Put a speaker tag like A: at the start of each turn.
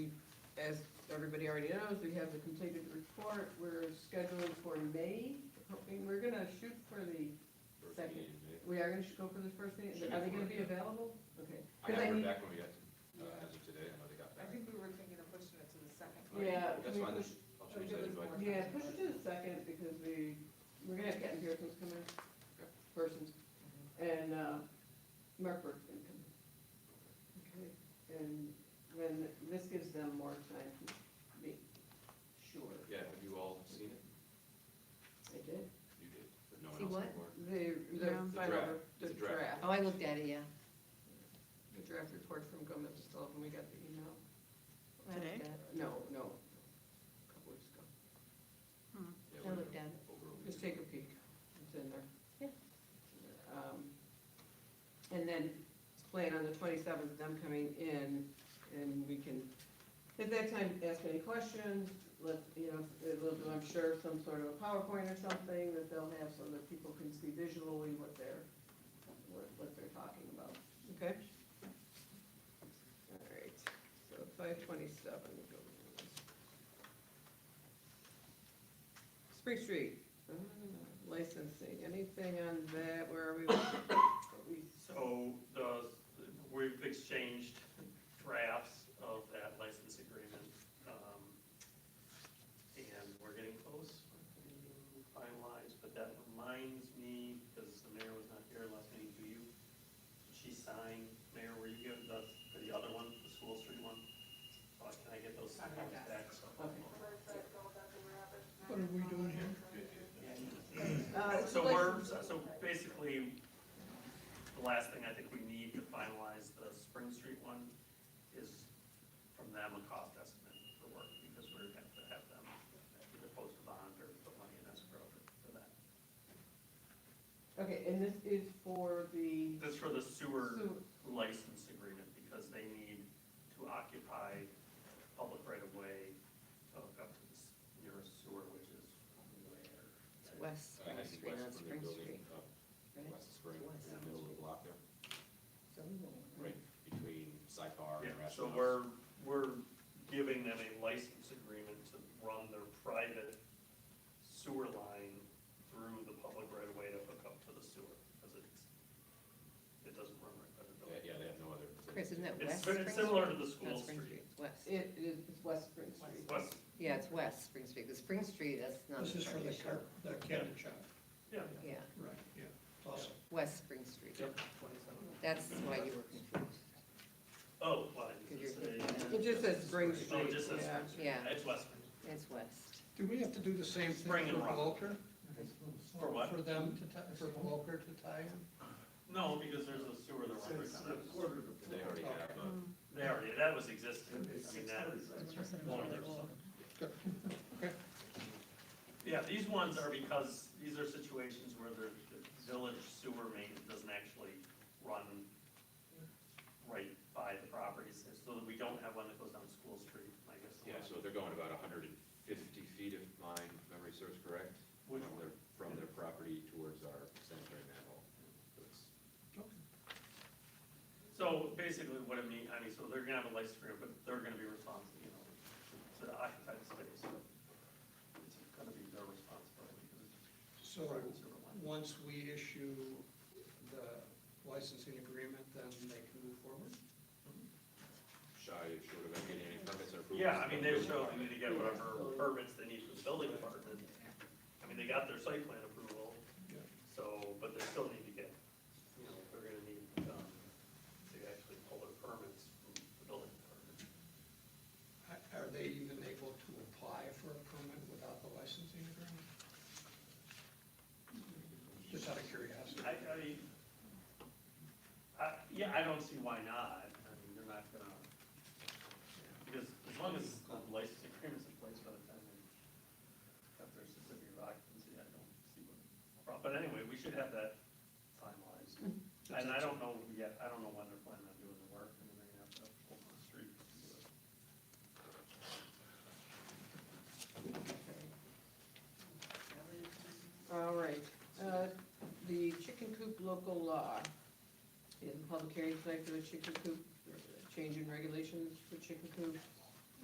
A: as everybody already knows, we have the completed report, we're scheduled for May, hoping, we're gonna shoot for the,
B: First
A: Second.
B: meeting in May.
A: we are gonna go for the first meeting,
B: Shoot
A: are they
B: for
A: gonna
B: it,
A: be
B: yeah.
A: available? Okay,
B: I
A: Because I
B: haven't heard
A: need-
B: back when we got, uh, as of today, I know they got
C: I
B: back.
C: think we were thinking of pushing it to the second.
A: Yeah,
B: That's
A: we-
B: fine, then I'll
C: we
B: change
C: do
B: that
C: it
B: invite.
C: more.
A: yeah, push it to the second, because we, we're gonna have Captain Pearson's come in,
B: Okay.
A: persons, and, uh, Mark Burke's gonna come in. Okay. And then this gives them more time to be sure.
B: Yeah, have you all seen it?
A: They did.
B: You did, but no one
D: See
B: else
D: what?
B: before.
A: The, the
D: No.
B: The
A: final,
B: draft.
A: the
B: It's a draft.
A: draft.
D: Oh, I looked at it, yeah.
A: The draft report from Gomez and Sullivan, we got the email.
D: I looked
E: Today?
D: at it.
A: No, no, a couple weeks ago.
B: Yeah,
D: I
B: we're
D: looked at it.
B: over a week.
A: Just take a peek, it's in there.
D: Yeah.
A: Um, And then plan on the twenty-seventh, them coming in, and we can, at that time, ask any questions, let, you know, they'll do, I'm sure, some sort of a PowerPoint or something that they'll have so that people can see visually what they're, what, what they're talking about, okay? All right, so five twenty-seven. Spring Street, uh, licensing, anything on that, where are we? we?
F: So the, we've exchanged drafts of that license agreement. um, And we're getting close, we're getting finalized, but that reminds me, because the mayor was not here last meeting, do you? She signed, Mayor, were you giving us for the other one, the school street one? So I- can I get those signed back?
C: What are we doing here?
A: Uh,
F: So we're, so basically, the last thing I think we need to finalize the Spring Street one is from them a cost estimate for work, because we're gonna have to have them either post a bond or put money in escrow for that.
A: Okay, and this is for the
F: This for the sewer
A: sewer,
F: license agreement, because they need to occupy public right of way to hook up to this nearest sewer, which is
D: It's
F: where?
D: West,
B: Uh,
D: Spring
B: heading
D: Street, not
B: west from their building, up
D: Spring Street. right?
B: West of Spring,
D: West.
B: in the middle of the block there,
D: So we won't.
B: right between Syfar
F: Yeah,
B: and Rathmos.
F: so we're, we're giving them a license agreement to run their private sewer line through the public right of way to hook up to the sewer, because it's, it doesn't run right by the
B: Yeah,
F: building.
B: yeah, they have no other.
D: Chris, isn't that
F: It's
D: West
F: very
D: Spring Street?
F: similar to the school
D: Not Spring Street,
F: street.
D: it's West.
A: it is it's West Spring Street.
F: West,
D: Yeah, it's West Spring Street, because Spring Street, that's not.
E: This is for
D: part of
E: the
D: the
E: car, the candy shop,
F: yeah,
D: show. Yeah,
E: right, yeah, awesome.
D: West Spring Street.
F: Yep.
D: That's why you were confused.
F: oh, why, does
D: Because
F: it
D: you're
F: say?
D: thinking
A: It just says Spring Street.
F: Oh, it just says
A: yeah.
F: Spring Street,
D: Yeah.
F: it's West Spring,
D: It's West.
E: Do we have to do the same
F: Spring
E: thing
F: and
E: for
F: rock.
E: Walker?
F: For what?
E: For them to, ti- for Walker to tie in?
F: no, because there's a sewer that runs right down it.
B: They already have, uh,
F: They already, that was existing, I mean, that is, one of their Yeah, these ones are because, these are situations where the the village sewer main doesn't actually run right by the properties, so that we don't have one that goes down School Street, I guess.
B: yeah, so they're going about hundred and fifty feet if my memory serves correct, from
F: Which-
B: their, from their property towards our sanitary manhole. So it's-
F: So basically what it means, I mean, so they're gonna have a license agreement, but they're gonna be responsible, you know, to occupy the space, so it's gonna be their responsibility, because it's
E: So,
F: a private sewer line.
E: once we issue the licensing agreement, then they can move forward?
B: Shy, short of getting any permits or approvals.
F: Yeah, I mean, they
B: building
F: show,
B: department.
F: they need to get whatever permits they need from the building department, I mean, they got their site plan approval,
E: Yeah.
F: So, but they still need to get, you know, they're gonna need, um, to actually pull their permits from the building department.
E: Are- Are they even able to apply for a permit without the licensing agreement? Just out of curiosity.
F: I, I mean, I, yeah, I don't see why not, I mean, they're not gonna, because as long as the license agreement's in place by the time they have their certificate of occupancy, I don't see what, the problem- but anyway, we should have that finalized. And I don't know yet, I don't know when they're planning on doing the work, I mean, they're gonna have to open the street to do it.
A: All right, uh, the chicken coop local law is a public hearing tonight for the chicken coop, uh, change in regulations for chicken coops.